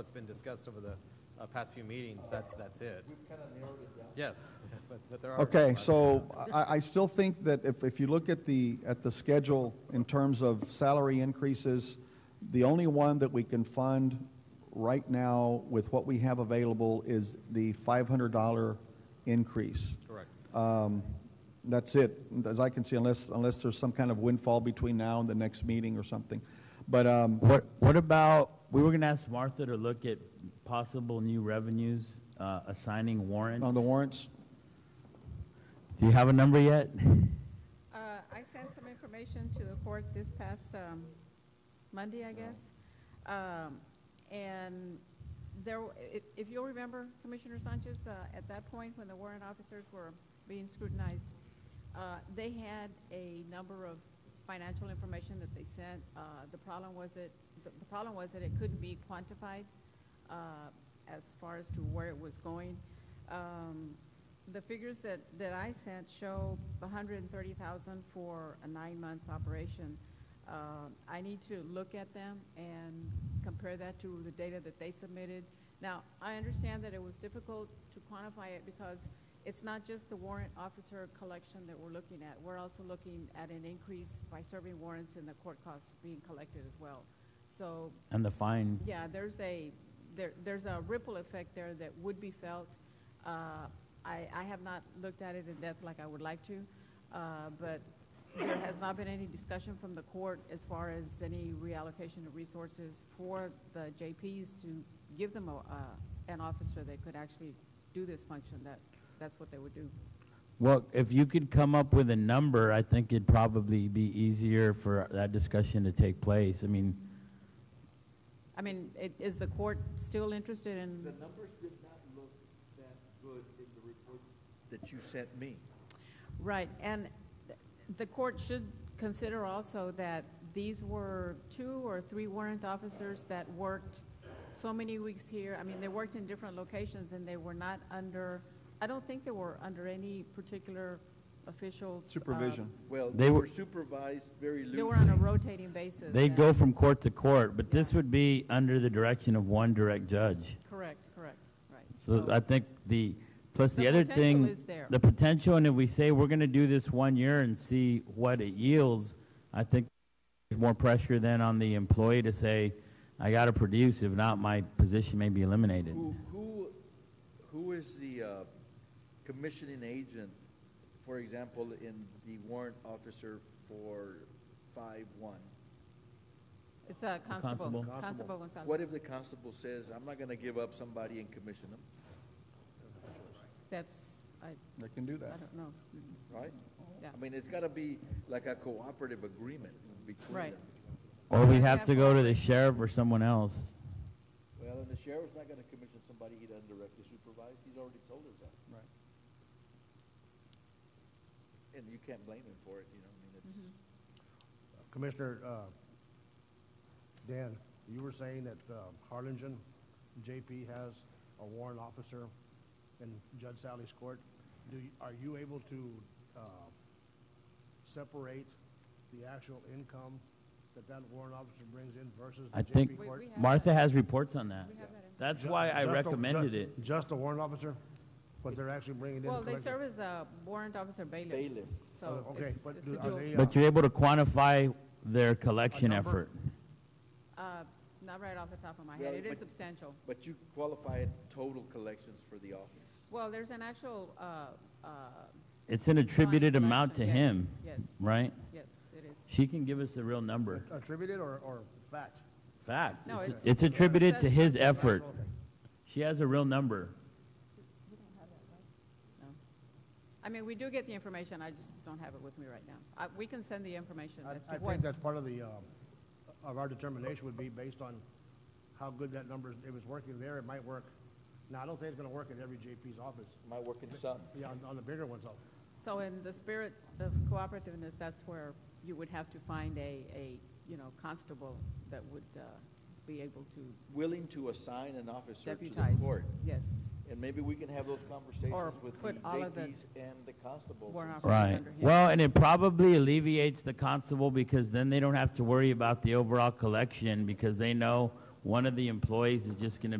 what's been discussed over the uh, past few meetings, that's, that's it. We've kind of narrowed it down. Yes, but, but there are. Okay, so I, I still think that if, if you look at the, at the schedule in terms of salary increases, the only one that we can fund right now with what we have available is the $500 increase. Correct. That's it, as I can see, unless, unless there's some kind of windfall between now and the next meeting or something. But, um, What, what about, we were gonna ask Martha to look at possible new revenues, uh, assigning warrants. on the warrants, Do you have a number yet? Uh, I sent some information to the court this past um, Monday, I guess. Um, And there, w- i- if you'll remember, Commissioner Sanchez, uh, at that point, when the warrant officers were being scrutinized, uh, they had a number of financial information that they sent. Uh, The problem was that, the the problem was that it couldn't be quantified uh, as far as to where it was going. Um, The figures that, that I sent show hundred and thirty thousand for a nine-month operation. Um, I need to look at them and compare that to the data that they submitted. Now, I understand that it was difficult to quantify it because it's not just the warrant officer collection that we're looking at. We're also looking at an increase by serving warrants and the court costs being collected as well. So And the fine, yeah, there's a, there, there's a ripple effect there that would be felt. Uh, I, I have not looked at it in depth like I would like to, uh, but there has not been any discussion from the court as far as any reallocation of resources for the JPs to give them a, uh, an officer that could actually do this function, that, that's what they would do. well, if you could come up with a number, I think it'd probably be easier for that discussion to take place. I mean, I mean, i- is the court still interested in? The numbers did not look that good in the report that you sent me. Right, and th- the court should consider also that these were two or three warrant officers that worked so many weeks here. I mean, they worked in different locations and they were not under, I don't think they were under any particular official. uh, supervision. Well, They they were- were supervised very They were on a loosely. rotating basis. they and- go from court to court, but this would be under the direction of one direct judge. Correct, correct, right. So I think the, plus the Oh. The other potential thing. is there. The potential, and if we say we're gonna do this one year and see what it yields, I think there's more pressure then on the employee to say, I gotta produce, if not, my position may be eliminated. Who, who, who is the uh, commissioning agent, for example, in the warrant officer for five one? It's a Constable. constable, Constable Gonzalez. What if the constable says, I'm not gonna give up somebody and commission them, That's, I, They can do I that. don't know. Mm, right? Yeah. I mean, it's gotta be like a cooperative agreement between Right. them. Or we'd have have to go to the sheriff or someone else. Well, and the sheriff's not gonna commission somebody he doesn't directly supervise, he's already told us that. Right. And you can't blame him for it, you know, I mean, it's, Mm-hmm. Commissioner, uh, Dan, you were saying that uh, Harlingen JP has a warrant officer in Judge Sally's court. Do, you- are you able to uh, separate the actual income that that warrant officer brings in versus I the think- JP We- court? we have Martha that. has reports on that. We have that in- That's Ju- why I just the- recommended ju- it. Just the warrant officer, what they're actually bringing in? Well, they collectively? serve as a warrant officer bailiff. Bailiff. So Oh, okay, it's, but it's do- a are dual. they, uh, But you're able to quantify their collection number? effort. Uh, Not right off the top of my head. Well, It is but- substantial. but you qualify it total collections for the office. Well, there's an actual, uh, uh. It's an attributed line amount to collection. him, Yes, yes, right? yes, it is. She can give us the real number. Attributed or, or fact? Fact. No, It's- it's- It's it's attributed to his assessment. effort. Okay. She has a real number. No. I mean, we do get the information. I just don't have it with me right now. I, we can send the information I- as to I what. think that's part of the, um, of our determination would be based on how good that number, is. if it's working there, it might work. Now, I don't think it's gonna work at every JP's office, Might work in some. yeah, on, on the bigger ones, though. So in the spirit of cooperativeness, that's where you would have to find a, a, you know, constable that would, uh, be able to Willing to assign an officer to the deputize. court. Yes. And maybe we can have those Or conversations with the put all of the JPs and the constables. warrant and officers Right. under him. Well, and it probably alleviates the constable because then they don't have to worry about the overall collection because they know one of the employees is just going to